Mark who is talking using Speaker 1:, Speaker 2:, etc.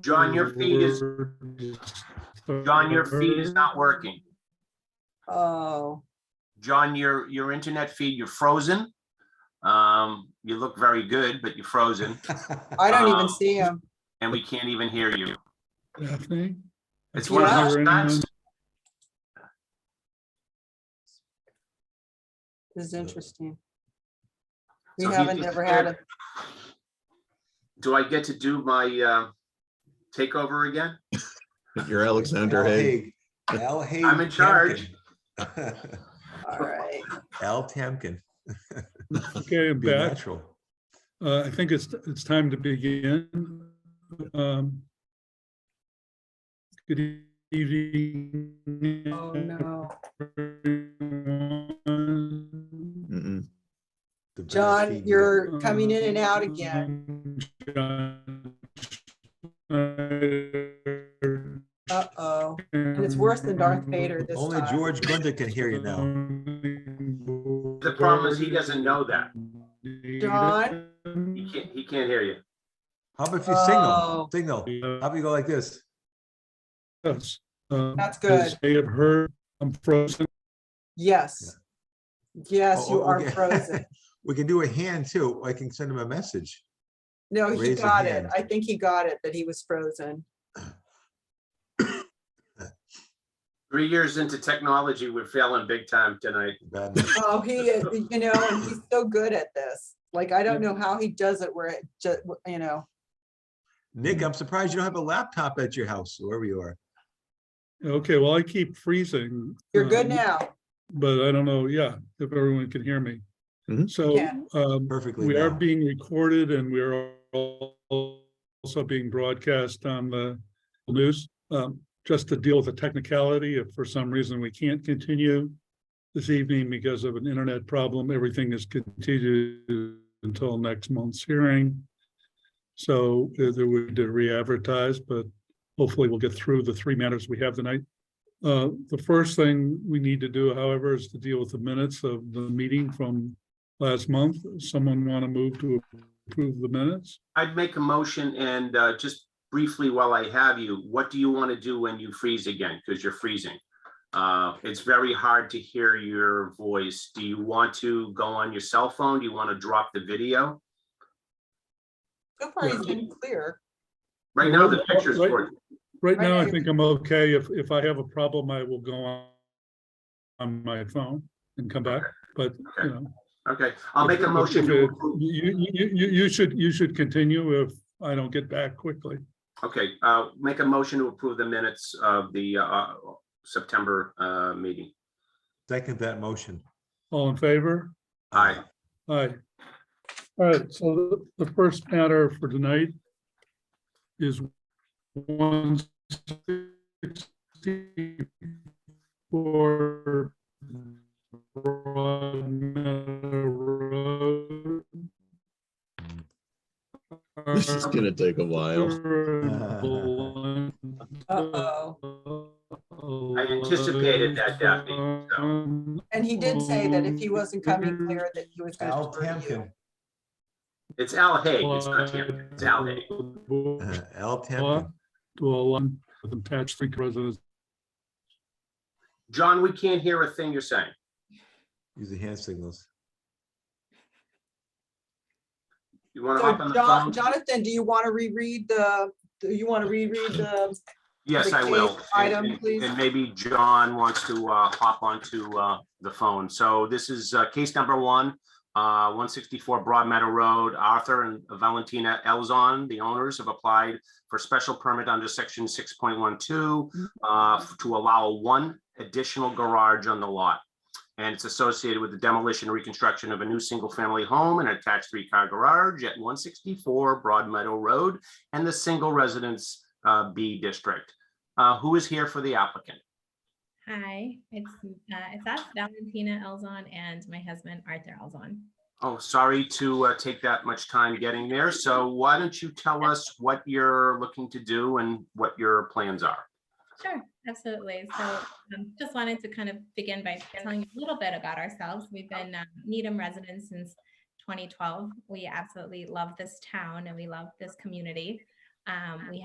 Speaker 1: John, your feed is, John, your feed is not working.
Speaker 2: Oh,
Speaker 1: John, your, your internet feed, you're frozen. Um, you look very good, but you're frozen
Speaker 2: I don't
Speaker 1: Um,
Speaker 2: even see him.
Speaker 1: and we can't even hear you.
Speaker 3: Daphne?
Speaker 1: It's one of
Speaker 2: Yeah.
Speaker 1: those times.
Speaker 2: This is interesting. We
Speaker 1: So he
Speaker 2: haven't
Speaker 1: just
Speaker 2: ever had
Speaker 1: shared-
Speaker 2: it.
Speaker 1: Do I get to do my, uh, takeover again?
Speaker 4: You're Alexander
Speaker 5: Al
Speaker 4: Haig.
Speaker 5: Haig. Al Haig.
Speaker 1: I'm in charge.
Speaker 5: Tamkin.
Speaker 2: All right.
Speaker 5: Al Tamkin,
Speaker 3: Okay, I'm
Speaker 5: be
Speaker 3: back.
Speaker 5: natural.
Speaker 3: Uh, I think it's, it's time to begin. Um, Good evening.
Speaker 2: Oh, no.
Speaker 3: Uh, everyone.
Speaker 4: Mm-mm.
Speaker 5: The best he-
Speaker 2: John, you're coming in and out again.
Speaker 3: Um, John.
Speaker 2: Uh-oh. And it's worse than Darth Vader this
Speaker 5: Only
Speaker 2: time.
Speaker 5: George Gunder can hear you now.
Speaker 3: The
Speaker 1: The problem is he doesn't know that.
Speaker 2: John?
Speaker 1: He can't, he can't hear you.
Speaker 5: How about if you signal,
Speaker 2: Oh.
Speaker 5: signal?
Speaker 3: Uh,
Speaker 5: How about you go like this?
Speaker 3: Yes. Um,
Speaker 2: That's good.
Speaker 3: as They have heard, I'm frozen.
Speaker 2: Yes. Yes,
Speaker 5: Oh,
Speaker 2: you
Speaker 5: oh,
Speaker 2: are
Speaker 5: okay.
Speaker 2: frozen.
Speaker 5: We can do a hand too. I can send him a message.
Speaker 2: No, he
Speaker 5: Raise a
Speaker 2: got it.
Speaker 5: hand.
Speaker 2: I think he got it, that he was frozen.
Speaker 1: Three years into technology, we're failing big time tonight.
Speaker 5: Bad enough.
Speaker 2: Oh, he, is, you know, and he's so good at this. Like, I don't know how he does it where it just, you know,
Speaker 5: Nick, I'm surprised you don't have a laptop at your house, wherever you are.
Speaker 3: Okay, well, I keep freezing.
Speaker 2: you're good
Speaker 3: um,
Speaker 2: now.
Speaker 3: But I don't know, yeah, if everyone can hear me.
Speaker 4: Mhm.
Speaker 3: So
Speaker 2: Yeah.
Speaker 3: um,
Speaker 5: Perfectly
Speaker 3: we are
Speaker 5: now.
Speaker 3: being recorded and we are al- also being broadcast on the news. Um, Just to deal with the technicality, if for some reason we can't continue this evening because of an internet problem, everything is continued until next month's hearing. So uh, there would to re-advertise, but hopefully we'll get through the three matters we have tonight. Uh, The first thing we need to do, however, is to deal with the minutes of the meeting from last month. Someone want to move to approve the minutes?
Speaker 1: I'd make a motion and uh, just briefly while I have you, what do you want to do when you freeze again? Because you're freezing. Uh, It's very hard to hear your voice. Do you want to go on your cell phone? Do you want to drop the video?
Speaker 2: So far, he's been clear.
Speaker 1: Right now, the picture's
Speaker 3: Right-
Speaker 1: for
Speaker 3: Right now, I
Speaker 2: Right.
Speaker 3: think I'm okay. If, if I have a problem, I will go on on my phone and come back, but, you know.
Speaker 1: Okay, I'll make a
Speaker 3: if-
Speaker 1: motion
Speaker 3: if
Speaker 1: to
Speaker 3: it-
Speaker 1: approve.
Speaker 3: You, you, you- you, you should, you should continue if I don't get back quickly.
Speaker 1: Okay, uh, make a motion to approve the minutes of the uh, September uh, meeting.
Speaker 5: Second that motion.
Speaker 3: All in favor?
Speaker 1: Aye.
Speaker 3: Aye. All right, so the the first matter for tonight is one sixty-four Broad Meadow Road.
Speaker 4: This is gonna take a while.
Speaker 2: Uh-oh.
Speaker 1: I anticipated that, Daphne,
Speaker 2: And he did say that if he wasn't coming clear, that he was
Speaker 5: Al
Speaker 2: going to you.
Speaker 5: Tamkin,
Speaker 1: It's Al Haig, it's not him, it's Al Haig.
Speaker 5: Uh, Al
Speaker 3: Law
Speaker 5: Tamkin.
Speaker 3: to allow them to attach three residents.
Speaker 1: John, we can't hear a thing you're saying.
Speaker 5: Use the hand signals.
Speaker 1: You want to hop on
Speaker 2: So
Speaker 1: the
Speaker 2: John,
Speaker 1: phone?
Speaker 2: Jonathan, do you want to reread the, do you want to reread the,
Speaker 1: Yes,
Speaker 2: the
Speaker 1: I will.
Speaker 2: case item,
Speaker 1: And- and-
Speaker 2: please.
Speaker 1: And maybe John wants to uh, hop onto uh, the phone. So this is uh, case number one, uh, 164 Broad Meadow Road. Arthur and Valentina Elzon, the owners, have applied for special permit under section 6.12 uh, to allow one additional garage on the lot. And it's associated with the demolition and reconstruction of a new single-family home and attached three-car garage at 164 Broad Meadow Road and the single residence uh, B district. Uh, Who is here for the applicant?
Speaker 6: Hi, it's, uh, it's us, Valentina Elzon and my husband Arthur Elzon.
Speaker 1: Oh, sorry to uh, take that much time getting there. So why don't you tell us what you're looking to do and what your plans are?
Speaker 6: Sure, absolutely. So um, just wanted to kind of begin by telling you a little bit about ourselves. We've been um, Needham residents since 2012. We absolutely love this town and we love this community. Um, We